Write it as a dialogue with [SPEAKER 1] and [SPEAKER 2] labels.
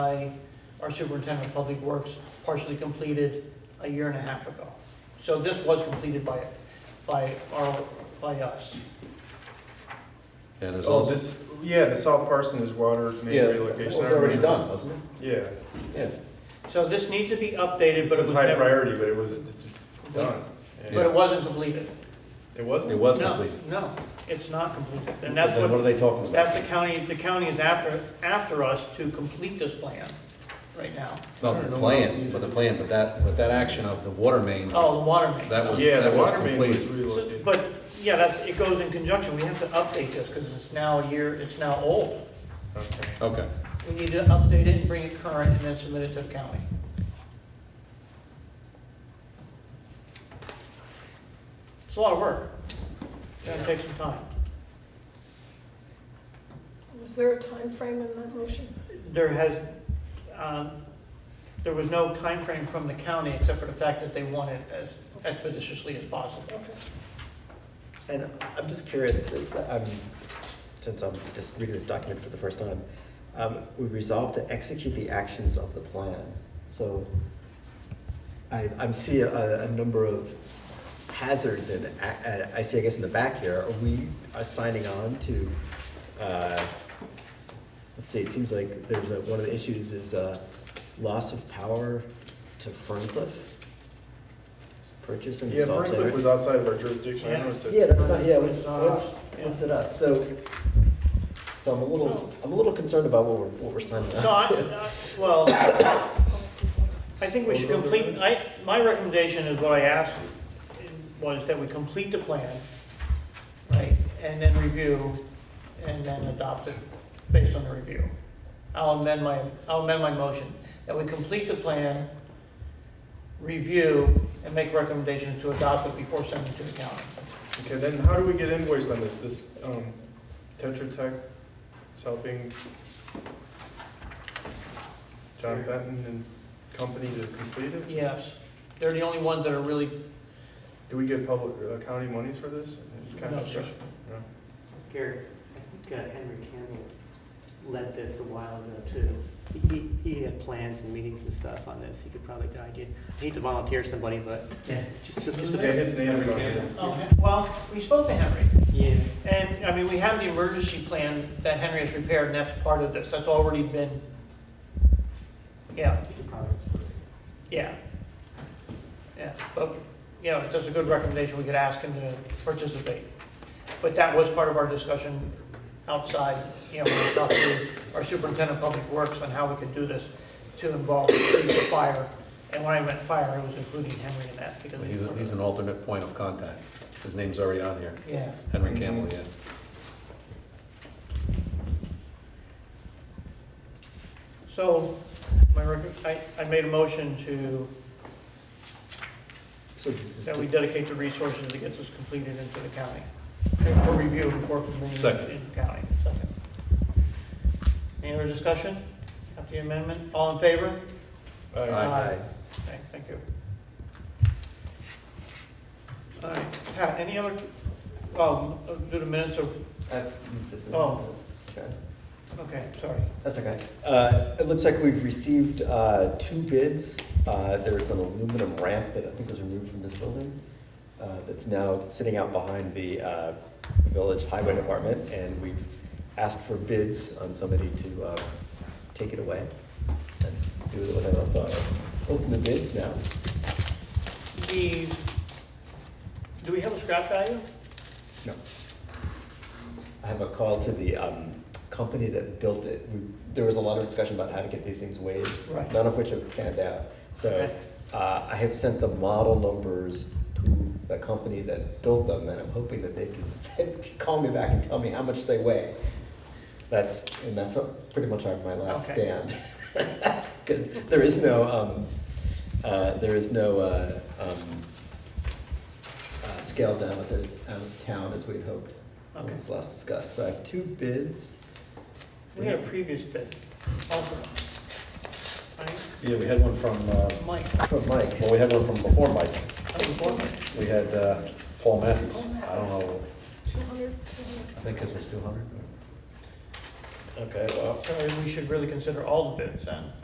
[SPEAKER 1] by our superintendent of public works, partially completed a year and a half ago. So this was completed by, by our, by us.
[SPEAKER 2] Yeah, there's
[SPEAKER 3] Oh,
[SPEAKER 2] also,
[SPEAKER 3] this, yeah, the South Parsonage water main
[SPEAKER 2] yeah, it was
[SPEAKER 3] relocation. I
[SPEAKER 2] already
[SPEAKER 3] remember.
[SPEAKER 2] done, wasn't it?
[SPEAKER 3] Yeah,
[SPEAKER 2] Yeah.
[SPEAKER 1] So this needs to be updated,
[SPEAKER 3] this
[SPEAKER 1] but it was
[SPEAKER 3] is high
[SPEAKER 1] never,
[SPEAKER 3] priority, but it was, it's done.
[SPEAKER 1] but it wasn't completed.
[SPEAKER 3] It wasn't?
[SPEAKER 2] It was
[SPEAKER 1] No,
[SPEAKER 2] complete.
[SPEAKER 1] No, it's not completed, and that's
[SPEAKER 2] Then what are
[SPEAKER 1] what,
[SPEAKER 2] they talking about?
[SPEAKER 1] that's the county, the county is after, after us to complete this plan right now.
[SPEAKER 2] It's not the plan, but the plan, but that, but that action of the water main,
[SPEAKER 1] Oh, the
[SPEAKER 2] was-
[SPEAKER 1] water main.
[SPEAKER 2] that was,
[SPEAKER 3] Yeah, the
[SPEAKER 2] that was
[SPEAKER 3] water main was
[SPEAKER 2] complete.
[SPEAKER 1] So-
[SPEAKER 3] relocated.
[SPEAKER 1] But, yeah, that, it goes in conjunction, we have to update this, because it's now a year, it's now old.
[SPEAKER 3] Okay.
[SPEAKER 2] Okay,
[SPEAKER 1] We need to update it and bring it current and then submit it to the county. It's a lot of work. It's gonna take some time.
[SPEAKER 4] Was there a time frame in that motion?
[SPEAKER 1] There has, um, there was no time frame from the county except for the fact that they want it as expeditiously as possible.
[SPEAKER 4] Okay.
[SPEAKER 5] And I'm just curious, um, since I'm just reading this document for the first time, um, we resolve to execute the actions of the plan. So I, I'm see a, a number of hazards and, a- and I see, I guess in the back here, are we are signing on to, uh, let's see, it seems like there's a, one of the issues is, uh, loss of power to Ferncliff? Purchase and
[SPEAKER 3] Yeah,
[SPEAKER 5] install. generator?
[SPEAKER 3] Ferncliff was outside of our jurisdiction, I noticed it.
[SPEAKER 5] Yeah, that's not, yeah,
[SPEAKER 1] It's
[SPEAKER 5] what's,
[SPEAKER 1] not
[SPEAKER 5] what's,
[SPEAKER 1] us, yeah.
[SPEAKER 5] what's it us, so, so I'm a little, I'm a little concerned about what we're, what we're signing
[SPEAKER 1] So
[SPEAKER 5] on.
[SPEAKER 1] I, I- well, I think we should complete, I, my recommendation is what I asked, was that we complete the plan, right, and then review, and then adopt it based on the review. I'll amend my, I'll amend my motion, that we complete the plan, review, and make recommendations to adopt it before sending it to the county.
[SPEAKER 3] Okay, then how do we get invoiced on this, this, um, Tetra Tech is helping John Fenton and company to complete it?
[SPEAKER 1] Yes, they're the only ones that are really,
[SPEAKER 3] Do we get public, uh, county monies for this?
[SPEAKER 1] No, sir.
[SPEAKER 3] No.
[SPEAKER 6] Gary, I think uh, Henry Campbell led this a while ago too. He- He, he had plans and meetings and stuff on this, he could probably guide you. I hate to volunteer somebody, but just, to- just,
[SPEAKER 3] Yeah,
[SPEAKER 6] to-
[SPEAKER 3] his name is on here.
[SPEAKER 1] oh, well, we spoke to Henry.
[SPEAKER 6] yeah,
[SPEAKER 1] And, I mean, we have the emergency plan that Henry has prepared, and that's part of this, that's already been, yeah,
[SPEAKER 6] he could probably.
[SPEAKER 1] yeah. Yeah, but, you know, that's a good recommendation, we could ask him to participate. But that was part of our discussion outside, you know, we talked to our superintendent of public works on how we could do this to involve the police, the fire, and when I meant fire, I was including Henry in that, because.
[SPEAKER 2] he's, he's an alternate point of contact. His name's already on here,
[SPEAKER 1] Yeah,
[SPEAKER 2] Henry Campbell, yeah.
[SPEAKER 1] so, my, rec- I, I made a motion to
[SPEAKER 5] So this is,
[SPEAKER 1] that we
[SPEAKER 5] to-
[SPEAKER 1] dedicate the resources to get this completed into the county, for review before completing
[SPEAKER 2] Second.
[SPEAKER 1] in the county. Second. Any other discussion after the amendment? All in favor?
[SPEAKER 3] Aye.
[SPEAKER 2] Aye.
[SPEAKER 1] Okay, thank you. All right, Pat, any other, oh, do the minutes of,
[SPEAKER 5] uh, this is-
[SPEAKER 1] Oh.
[SPEAKER 5] Okay.
[SPEAKER 1] okay, sorry.
[SPEAKER 5] That's okay. Uh, it looks like we've received, uh, two bids. Uh, there's an aluminum ramp that I think was removed from this building, uh, that's now sitting out behind the, uh, Village Highway Department, and we've asked for bids on somebody to, uh, take it away and do with it what I want. So I open the bids now.
[SPEAKER 1] The, do we have a scrap value?
[SPEAKER 5] No. I have a call to the um, company that built it. We- There was a lot of discussion about how to get these things weighed,
[SPEAKER 1] Right.
[SPEAKER 5] none of which have panned out. So
[SPEAKER 1] Okay.
[SPEAKER 5] uh, I have sent the model numbers to the company that built them, and I'm hoping that they can send- call me back and tell me how much they weigh. That's, and that's uh, pretty much our- my last
[SPEAKER 1] Okay.
[SPEAKER 5] stand. Because there is no, um, uh, there is no uh, um, uh, scaled down at the, out of town as we had hoped. when
[SPEAKER 1] Okay.
[SPEAKER 5] It was last discussed, so I have two bids.
[SPEAKER 1] We had a previous bid, also. Right,
[SPEAKER 2] Yeah, we had one from, uh,
[SPEAKER 1] Mike,
[SPEAKER 5] From Mike,
[SPEAKER 2] well, we had one from before Mike.
[SPEAKER 1] that was one.
[SPEAKER 2] We had, uh, Paul Matthews. I don't know,
[SPEAKER 4] 200,
[SPEAKER 2] I think his was two hundred.
[SPEAKER 5] Okay, well.
[SPEAKER 1] uh, So we should really consider all the bids then.